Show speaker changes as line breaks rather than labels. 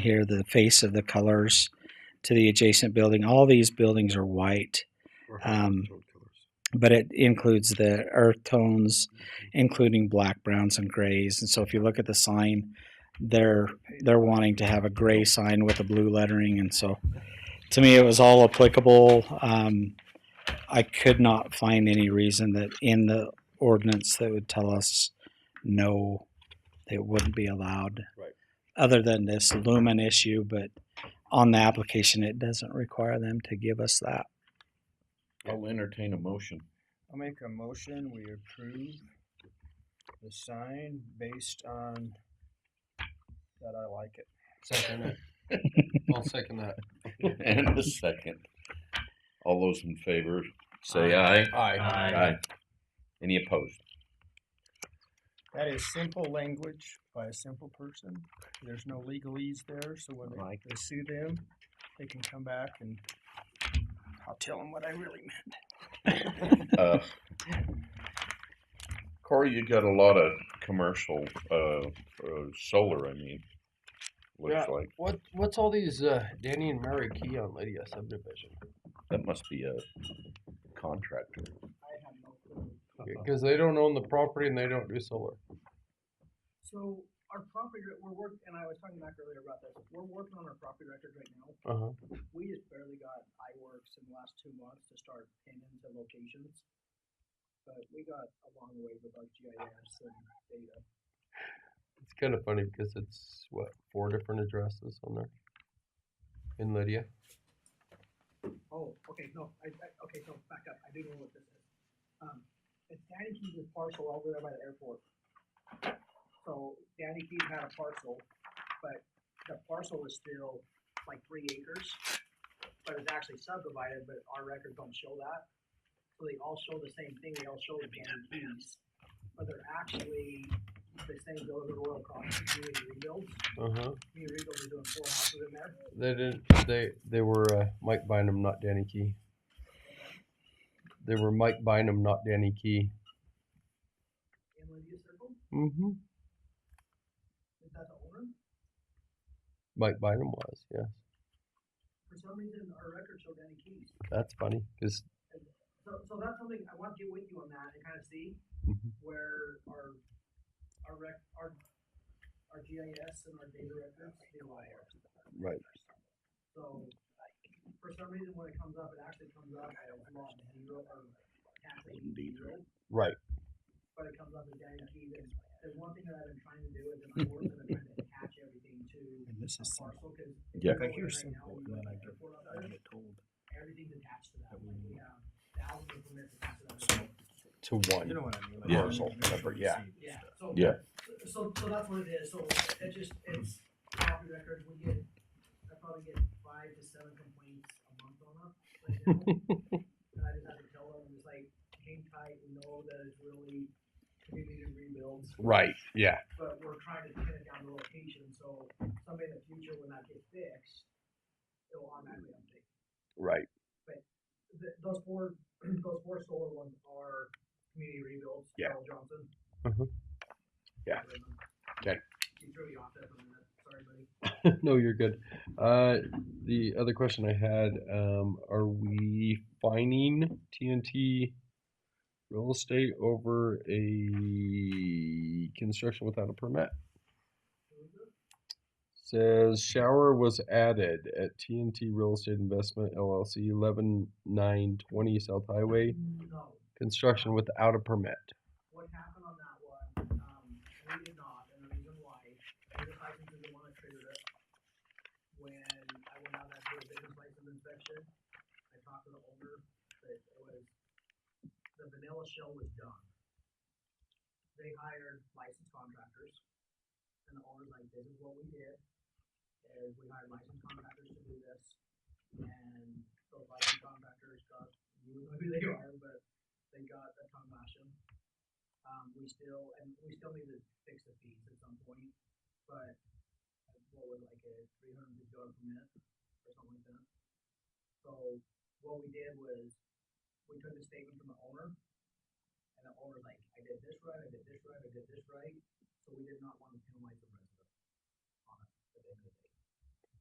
here, the face of the colors to the adjacent building. All these buildings are white,
Or
Um,
high-tone colors.
but it includes the earth tones, including black, browns, and grays. And so if you look at the sign, they're they're wanting to have a gray sign with a blue lettering. And so to me, it was all applicable. Um, I could not find any reason that in the ordinance that would tell us no, it wouldn't be allowed.
Right.
Other than this lumen issue, but on the application, it doesn't require them to give us that.
I'll entertain a motion.
I'll make a motion, we approve the sign based on that I like it.
Second it. I'll second that.
And a second. All those in favor, say aye.
Aye.
Any opposed?
That is simple language by a simple person. There's no legalese there, so when they,
Right.
they sue them, they can come back and I'll tell them what I really meant.
Uh, Corey, you got a lot of commercial, uh, uh, solar, I mean,
Yeah.
looks like.
What what's all these uh, Danny and Mary Key on Lydia subdivision?
That must be a contractor.
I have no clue.
Because they don't own the property and they don't do solar.
So our property, re- we're working, and I was talking back earlier about this, we're working on our property records right now.
Uh-huh.
We just barely got iWorks in the last two months to start pinning to locations. But we got a long way with our GIS and data.
It's kind of funny because it's what four different addresses on there in Lydia.
Oh, okay, no, I, I, okay, so back up, I do know what this is. Um, it's Danny Keys' parcel over there by the airport. So Danny Keys had a parcel, but the parcel is still like three acres. But it's actually subdivided, but our records don't show that. So they all show the same thing, they all show the Danny Keys. But they're actually, the same goes to Royal Cross, community rebuilds,
Uh huh.
community rebuilds are doing four houses in there.
They didn't. They they were uh, Mike Bynum, not Danny Key. They were Mike Bynum, not Danny Key.
In Lydia Circle,
Mm-hmm.
is that the owner?
Mike Bynum was. Yeah.
For some reason, our records show Danny Keys.
That's funny because
So, so that's something I want to get with you on that and kind of see
Mhm.
where our, our rec, our, our GIS and our data records, they lie.
Right.
So, for some reason, when it comes up, it actually comes up, I don't know, zero or taxation zero,
right.
but it comes up as Danny Keys. And there's one thing that I've been trying to do is I'm working on trying to attach everything to
And this
a
is simple.
parcel, cause.
Yeah.
If I hear
Right now,
simple,
we
and then
look
I
at
get,
the report
I
on
get told.
everything's attached to that,
That we
like we
need.
have thousands of permits attached to that.
To one.
You know what I mean? Like,
Yeah.
I don't
Parcel,
even
number,
see
yeah.
this
Yeah,
stuff.
so.
Yeah.
So, so that's what it is, so it just, it's property records, we get, I probably get five to seven complaints a month on it right now. And I just have to tell them, it's like, hang tight, we know that it's really community rebuilds,
Right. Yeah.
but we're trying to pin it down to location, so someday in the future, when that gets fixed, it'll automatically update.
Right.
Th those four, those four solar ones are community rebuilds,
Yeah.
Carol Johnson.
Mhm. Yeah. Okay.
You threw me off there for a minute, sorry buddy.
no, you're good. Uh, the other question I had: um, Are we fining TNT real estate over a construction without a permit? Says shower was added at TNT Real Estate Investment LLC, eleven nine twenty South Highway.
No,
Construction without a permit.
what happened on that one, um, we did not, and the reason why, is the license is the one that triggered it. When I went out and did a business license inspection, I talked to the owner, but it was, the vanilla shell was done. They hired licensed contractors, and the owner's like, this is what we did, is we hired licensed contractors to do this, and those licensed contractors got, you know who they are, but they got a ton of action um, we still, and we still need to fix the fees at some point, but what was like a three hundred and fifty dollar permit or something like that. So what we did was, we took the statement from the owner, and the owner's like, I did this right, I did this right, I did this right, so we did not want to penalize the resident on it at the end of the day.